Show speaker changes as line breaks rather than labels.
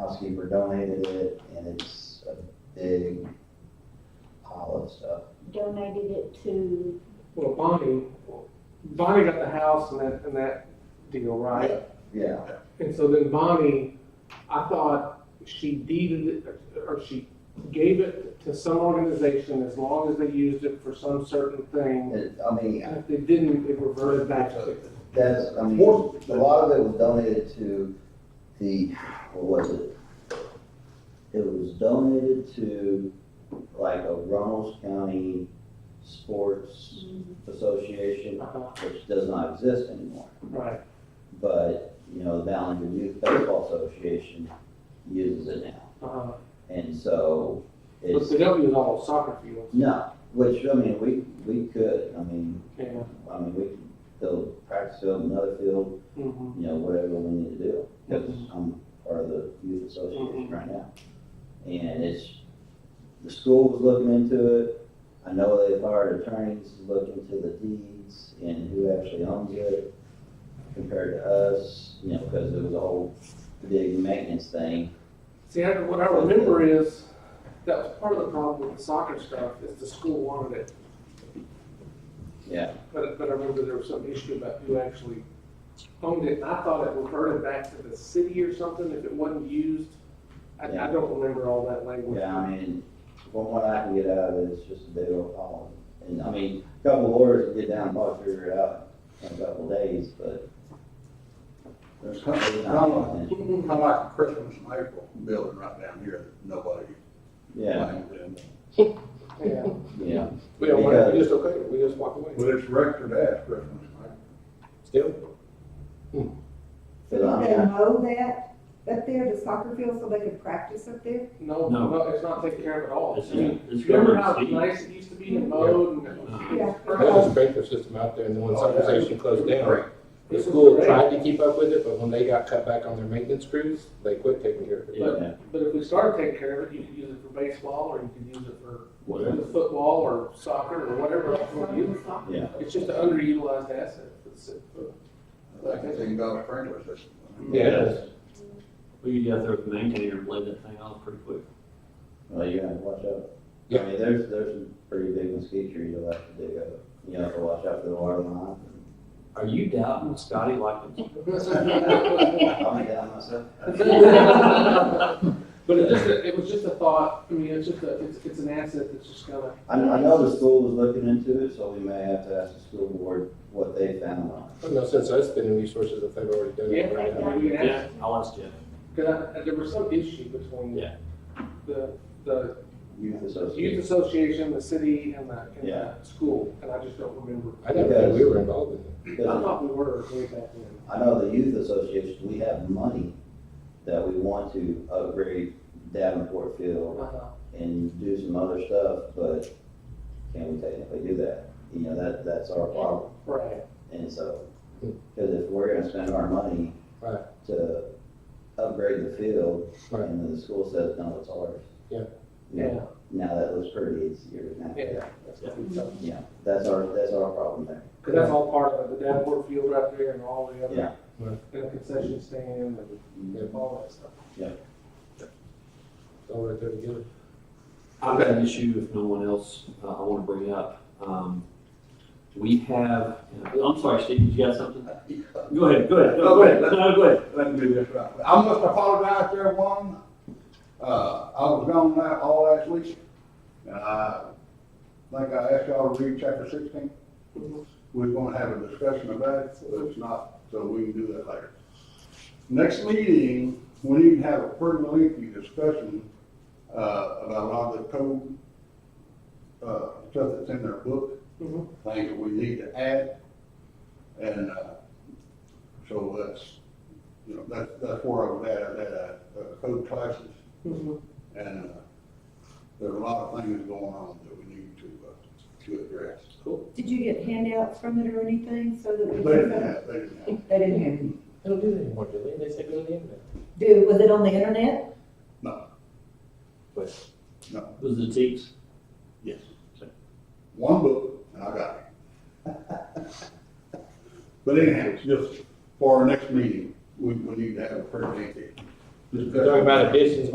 housekeeper donated it, and it's a big pile of stuff.
donated it to,
Well, Bonnie, Bonnie got the house and that, and that deal, right?
Yeah,
And so then Bonnie, I thought she deeded it, or she gave it to some organization as long as they used it for some certain thing.
it, I mean,
And if they didn't, it reverted back to.
That's, I mean, a lot of it was donated to the, what was it? It was donated to like a Ronalds County Sports Association,
Uh-huh,
which does not exist anymore.
Right,
But, you know, the Ballinger Youth Baseball Association uses it now.
uh-huh.
And so
But
it's,
the W is all soccer fields,
no, which, I mean, we, we could, I mean,
yeah.
I mean, we could go practice field, another field,
mhm.
you know, whatever we need to do. Because
Mhm.
I'm part of the youth association
Mhm.
right now. And it's, the school was looking into it. I know they've hired attorneys to look into the deeds and who actually owns it compared to us, you know, because it was a whole big maintenance thing.
See, I, what I remember is, that was part of the problem with the soccer stuff, is the school wanted it.
Yeah.
But, but I remember there was some issue about who actually owned it, and I thought it reverted back to the city or something if it wasn't used. I, I
Yeah.
don't remember all that language.
Yeah, I mean, from what I can get out of it, it's just a big old pile. And I mean, a couple of lawyers can get down and probably figure it out in a couple of days, but
There's kind of,
it's
kind
not
of
going
like, kind of like a Christmas and April building right down here that nobody
yeah,
planned in.
Yeah.
yeah.
We don't want it, we just okay, we just walk away.
But it's record as Christmas and April.
But I
They
mean,
mow that, up there, the soccer field, so they can practice up there?
No,
No.
no, it's not taken care of at all.
It's,
I mean,
it's
Remember
government
how
seed.
nice it used to be in mode and.
Yeah.
There was a sprinkler system out there, and then when civilization closed down, the school tried to keep up with it, but when they got cut back on their maintenance crews, they quit taking care of it.
Yeah,
But if we started taking care of it, you could use it for baseball, or you could use it for
whatever.
football, or soccer, or whatever else you want to use.
Yeah.
It's just an underutilized asset for the city.
Like a thing about sprinkler system.
Yes.
We could get out there with the maintainer and blade that thing off pretty quick.
Well, you have to watch out. I
Yeah.
mean, there's, there's some pretty big mosquito trees you'll have to dig up. You have to watch out for the water line.
Are you doubting Scotty like?
I'll be down myself.
But it just, it was just a thought, I mean, it's just a, it's, it's an asset that's just gonna.
I, I know the school was looking into it, so we may have to ask the school board what they found on
There's no sense us spending resources if they've already done it.
Yeah, I mean,
Yeah.
you can ask-
Yeah, I'll ask Jeff.
Cause I, there was some issue between
Yeah.
the, the
it. Youth
youth
association.
association, the city, and the, and the
Yeah.
school, and I just don't remember.
I didn't know we were involved in it.
I
Because
thought we were way back then.
I know the youth association, we have money that we want to upgrade Davenport Field
Uh-huh.
and do some other stuff, but can we technically do that? You know, that, that's our problem.
Right,
And so, because if we're gonna spend our money
Right.
to upgrade the field,
Right.
and then the school says, no, it's ours.
Yeah.
You know,
yeah,
Now that looks pretty, it's yours now.
yeah, that's gonna be tough.
Yeah, that's our, that's our problem there.
Cause that's all part of it, the Davenport field right there and all the
Yeah.
other, and the concession stand and all that stuff.
It's all right there together.
I've got an issue if no one else, uh, I want to bring up. Um, we have, uh, I'm sorry, Steve, you got something? Go ahead, go ahead, go ahead, no, go ahead.
Let me do this right. I must apologize to everyone. Uh, I was gone that all last week. And I think I asked y'all to read chapter sixteen. We're gonna have a discussion of that, but it's not, so we can do that later. Next meeting, we need to have a pretty lengthy discussion, uh, about a lot of the code, uh, stuff that's in their book,
Mhm.
things that we need to add. And, uh, so that's, you know, that, that's where I was at, I had, uh, uh, code classes,
Mhm.
and, uh, there are a lot of things going on that we need to, uh, to address.
Did you get handouts from it or anything, so that
They
we
didn't
could?
have, they didn't have.
They didn't have any.
They don't do that anymore, do they? They say go to the internet.
Do, was it on the internet?
Was the teats?
Yes. One book, and I got it. But anyhow, just for our next meeting, we, we need to have a pretty lengthy
Talking about additions